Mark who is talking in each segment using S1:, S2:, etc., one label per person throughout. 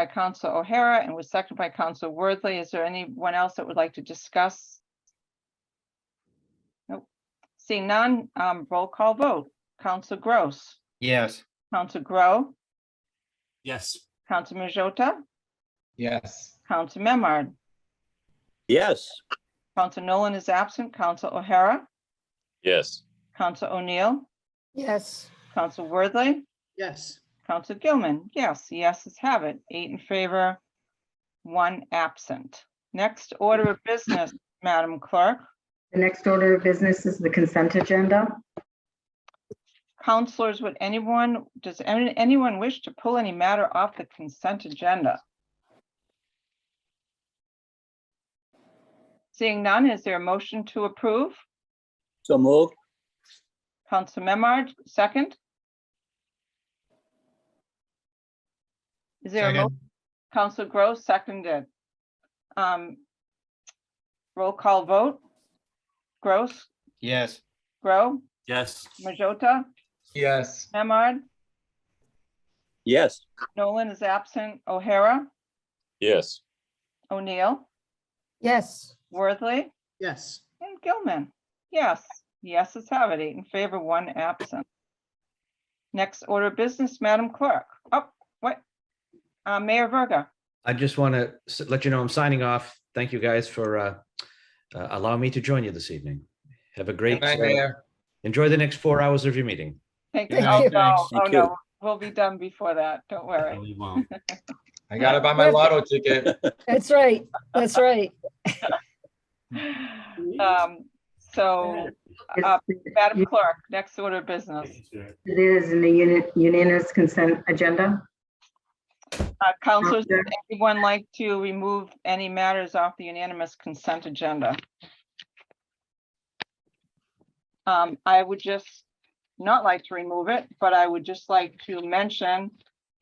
S1: by Council O'Hara and was seconded by Council Worthley. Is there anyone else that would like to discuss? Nope. Seeing none, um, roll call vote. Council Gross,
S2: Yes.
S1: Council Grow,
S3: Yes.
S1: Council Majota,
S2: Yes.
S1: Council Memard.
S4: Yes.
S1: Council Nolan is absent. Council O'Hara,
S4: Yes.
S1: Council O'Neill,
S5: yes.
S1: Council Worthley,
S3: Yes.
S1: Council Gilman. Yes, yes, it's have it. Eight in favor, one absent. Next order of business, Madam Clerk.
S6: The next order of business is the consent agenda.
S1: Counselors, would anyone, does any- anyone wish to pull any matter off the consent agenda? Seeing none, is there a motion to approve?
S4: So moved.
S1: Council Memard, second? Is there a mo-
S2: Second.
S1: Council Gross, seconded? Um, Roll call vote? Gross,
S2: Yes.
S1: Grow,
S3: Yes.
S1: Majota,
S2: Yes.
S1: Memard,
S4: Yes.
S1: Nolan is absent, O'Hara?
S4: Yes.
S1: O'Neill,
S5: Yes.
S1: Worthley,
S3: Yes.
S1: and Gilman. Yes, yes, it's have it, eight in favor, one absent. Next order of business, Madam Clerk. Oh, what? Uh, Mayor Verga.
S7: I just want to let you know I'm signing off. Thank you guys for uh, uh, allowing me to join you this evening. Have a great,
S2: Bye,
S7: uh,
S2: Mayor.
S7: enjoy the next four hours of your meeting.
S1: Thank you.
S2: Good
S1: Oh,
S2: night,
S1: no,
S2: thanks.
S1: oh,
S4: Thank
S1: no, we'll be done before that. Don't
S3: No,
S1: worry.
S3: we won't.
S2: I gotta buy my lotto ticket.
S5: That's right. That's right.
S1: Um, so, uh, Madam Clerk, next order of
S3: Um,
S1: business.
S6: It is in the uni- unanimous consent agenda.
S1: Uh, counselors, would anyone like to remove any matters off the unanimous consent agenda? Um, I would just not like to remove it, but I would just like to mention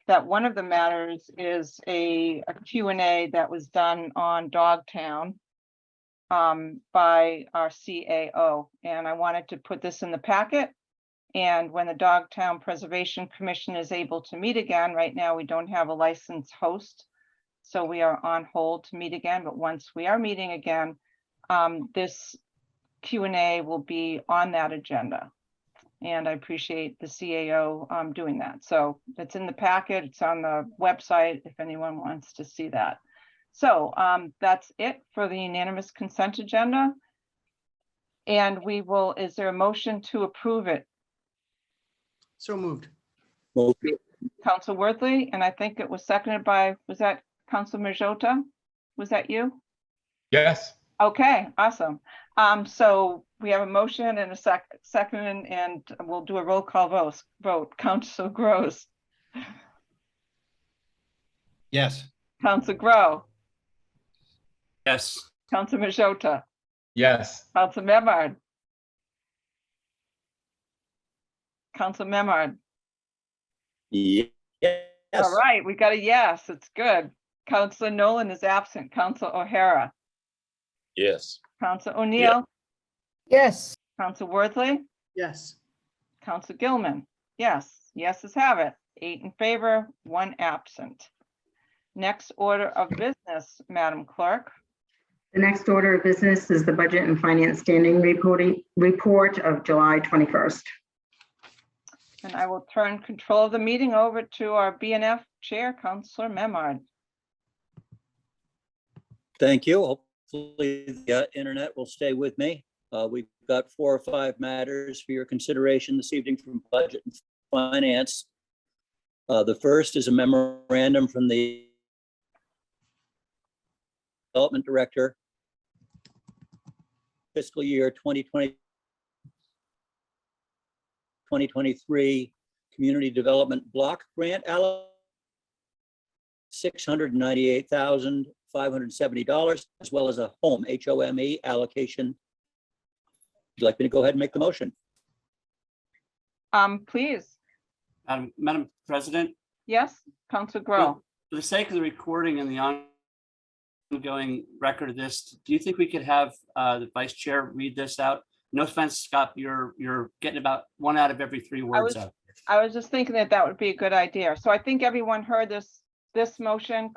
S1: that one of the matters is a a Q and A that was done on Dogtown um, by our CAO, and I wanted to put this in the packet and when the Dogtown Preservation Commission is able to meet again, right now, we don't have a licensed host. So we are on hold to meet again, but once we are meeting again, um, this Q and A will be on that agenda. And I appreciate the CAO, um, doing that. So it's in the packet, it's on the website, if anyone wants to see that. So, um, that's it for the unanimous consent agenda. And we will, is there a motion to approve it?
S3: So moved.
S4: Moved.
S1: Council Worthley, and I think it was seconded by, was that Council Majota? Was that you?
S2: Yes.
S1: Okay, awesome. Um, so we have a motion and a sec- second, and we'll do a roll call vote, vote. Council Gross,
S2: Yes.
S1: Council Grow,
S3: Yes.
S1: Council Majota,
S2: Yes.
S1: Council Memard. Council Memard.
S4: Ye- Yes.
S1: All right, we got a yes, it's good. Council Nolan is absent. Council O'Hara,
S4: Yes.
S1: Council O'Neill,
S5: Yes.
S1: Council Worthley.
S3: Yes.
S1: Council Gilman, yes, yeses have it, eight in favor, one absent. Next order of business, Madam Clerk,
S6: The next order of business is the budget and finance standing reporting report of July 21st.
S1: and I will turn control of the meeting over to our BNF Chair, Counselor Memard.
S4: Thank you. Hopefully the uh, internet will stay with me. Uh, We've got four or five matters for your consideration this evening from Budget and Finance. Uh, The first is a memorandum from the Development Director fiscal year 2020 2023 Community Development Block Grant allocation six hundred ninety-eight thousand, five hundred seventy dollars, as well as a home, H-O-M-E E, allocation. Would you like me to go ahead and make the motion?
S1: Um, please,
S3: Madam, Madam President,
S1: yes, Council Grow,
S3: for the sake of the recording and the ongoing record of this, do you think we could have uh, the vice chair read this out? No offense, Scott, you're, you're getting about one out of every three words
S1: was-
S3: out.
S1: I was just thinking that that would be a good idea, so I think everyone heard this this motion